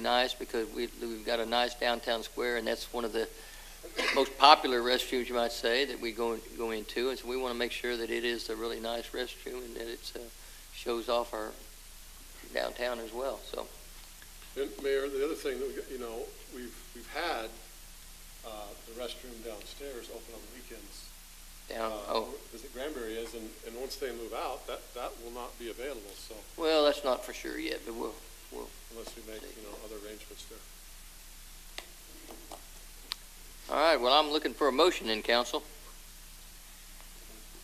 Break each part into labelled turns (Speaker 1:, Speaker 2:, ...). Speaker 1: nice because we, we've got a nice downtown square, and that's one of the most popular restrooms, you might say, that we go, go into, and so we want to make sure that it is a really nice restroom and that it's, uh, shows off our downtown as well, so.
Speaker 2: And Mayor, the other thing, that we got- you know, we've, we've had uh, the restroom downstairs open on weekends.
Speaker 1: Down,
Speaker 2: uh,
Speaker 1: oh,
Speaker 2: As the Granbury is, and, and once they move out, that, that will not be available, so
Speaker 1: well, that's not for sure yet, but we'll,
Speaker 2: unless we make, you know, other arrangements there.
Speaker 1: all right, well, I'm looking for a motion in council.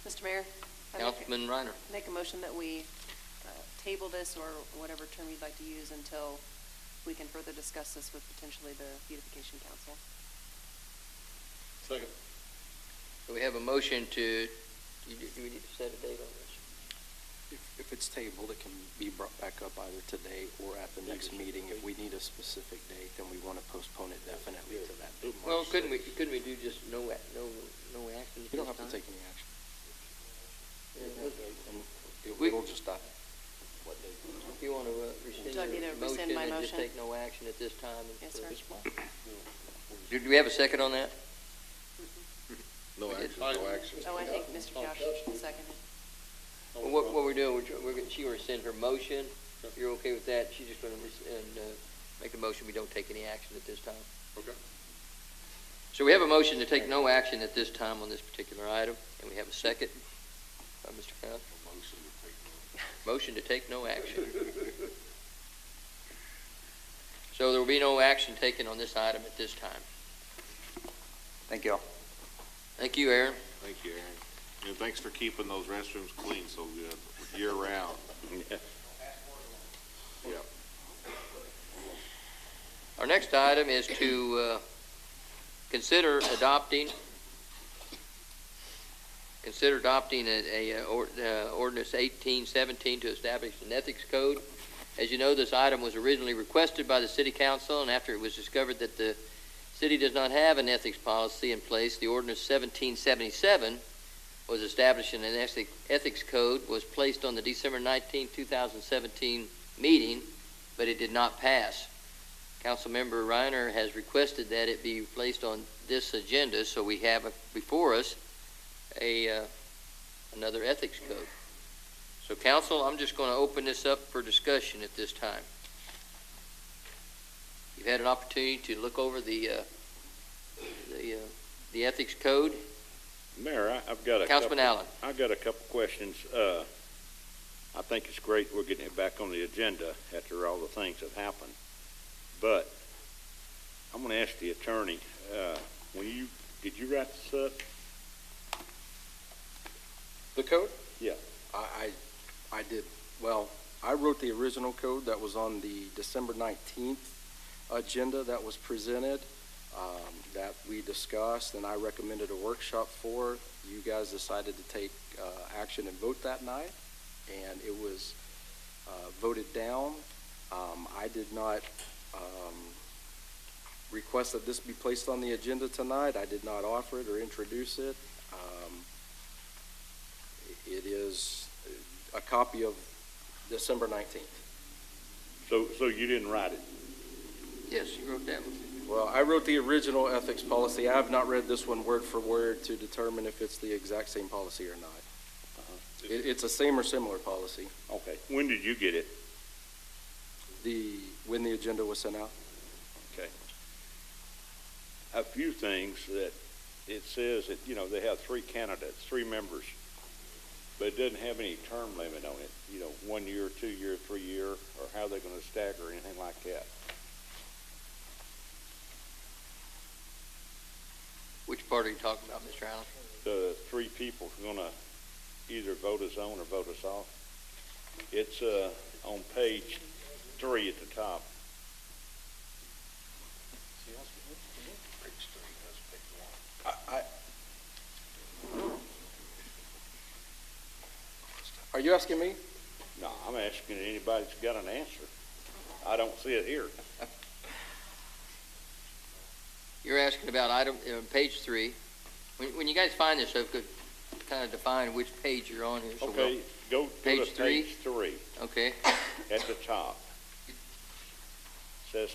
Speaker 3: Mr. Mayor? I make-
Speaker 1: Councilman Reiner.
Speaker 3: Make a motion that we uh, table this, or whatever term you'd like to use, until we can further discuss this with potentially the beautification council.
Speaker 2: Second,
Speaker 1: So we have a motion to, do you- do we need to set a date on this?
Speaker 4: If, if it's tabled, it can be brought back up either today or at the next meeting. If we need a specific date, then we want to postpone it definitely to that date.
Speaker 1: Well,
Speaker 4: March
Speaker 1: couldn't we,
Speaker 4: 6th.
Speaker 1: couldn't we do just no, ac- no, no action? at
Speaker 4: You
Speaker 1: this
Speaker 4: don't have to
Speaker 1: time?
Speaker 4: take any action.
Speaker 1: Yeah, look,
Speaker 4: And
Speaker 1: We-
Speaker 4: it- It'll just die.
Speaker 1: If you want to rescind
Speaker 3: Do I need
Speaker 1: your
Speaker 3: to
Speaker 1: motion
Speaker 3: rescind my
Speaker 1: and just
Speaker 3: motion?
Speaker 1: take no action at this time. and-
Speaker 3: Yes, sir.
Speaker 1: Do do we have a second on that?
Speaker 5: No
Speaker 1: We did.
Speaker 5: action, no action.
Speaker 3: Oh, I think Mr. Josh seconded.
Speaker 1: Well, What, what we're doing, we're, tr- we're, gonna- she gonna rescind her motion. If you're okay with that, she's just gonna rescind, uh, make a motion, we don't take any action at this time.
Speaker 2: okay.
Speaker 1: So we have a motion to take no action at this time on this particular item, and we have a second by Mr. Crown. Motion to take no action. So there will be no action taken on this item at this time.
Speaker 4: Thank you all.
Speaker 1: Thank you, Aaron.
Speaker 5: Thank you, Aaron. And thanks for keeping those restrooms clean so good, year round.
Speaker 1: Our next item is to uh, consider adopting, consider adopting a, a, uh, or- uh, ordinance eighteen seventeen to establish an ethics code. As you know, this item was originally requested by the city council, and after it was discovered that the city does not have an ethics policy in place, the ordinance seventeen seventy-seven was established and an ethic- ethics code, was placed on the December nineteenth, two thousand seventeen meeting, but it did not pass. Councilmember Reiner has requested that it be placed on this agenda, so we have before us a, uh, another ethics code. So council, I'm just going to open this up for discussion at this time. You've had an opportunity to look over the, uh, the, uh, the ethics code.
Speaker 6: Mayor, I- I've got a couple...
Speaker 1: Councilman Allen.
Speaker 6: I've got a couple questions. Uh, I think it's great we're getting it back on the agenda after all the things that happened. But I'm going to ask the attorney, uh, when you, did you write this up?
Speaker 4: The code?
Speaker 6: Yeah.
Speaker 4: I, I, I did, well, I wrote the original code that was on the December nineteenth agenda that was presented, um, that we discussed, and I recommended a workshop for. You guys decided to take, uh, action and vote that night, and it was, uh, voted down. Um, I did not, um, request that this be placed on the agenda tonight. I did not offer it or introduce it. Um, it is a copy of December 19th.
Speaker 6: So, so you didn't write it?
Speaker 1: Yes, you wrote that one.
Speaker 4: Well, I wrote the original ethics policy. I have not read this one word for word to determine if it's the exact same policy or not. It, it's a same or similar policy,
Speaker 6: Uh-huh. Okay. When did you get it?
Speaker 4: the, when the agenda was sent out.
Speaker 6: a few things that it says that, you know, they have three candidates, three members, but it doesn't have any term limit on it, you know, one year, two year, three year, or how they're gonna stagger, anything like that.
Speaker 1: Which part are you talking about, Mr. Allen?
Speaker 6: The three people are gonna either vote us on or vote us off. It's, uh, on page three at the top.
Speaker 4: I, I- are you asking me?
Speaker 6: No, I'm asking anybody that's got an answer. I don't see it here.
Speaker 1: You're asking about item, uh, page three. When, when you guys find this, so could kind of define which page you're on here. so we'll-
Speaker 6: Okay, go to
Speaker 1: Page
Speaker 6: the
Speaker 1: three?
Speaker 6: page three
Speaker 1: Okay,
Speaker 6: at the top.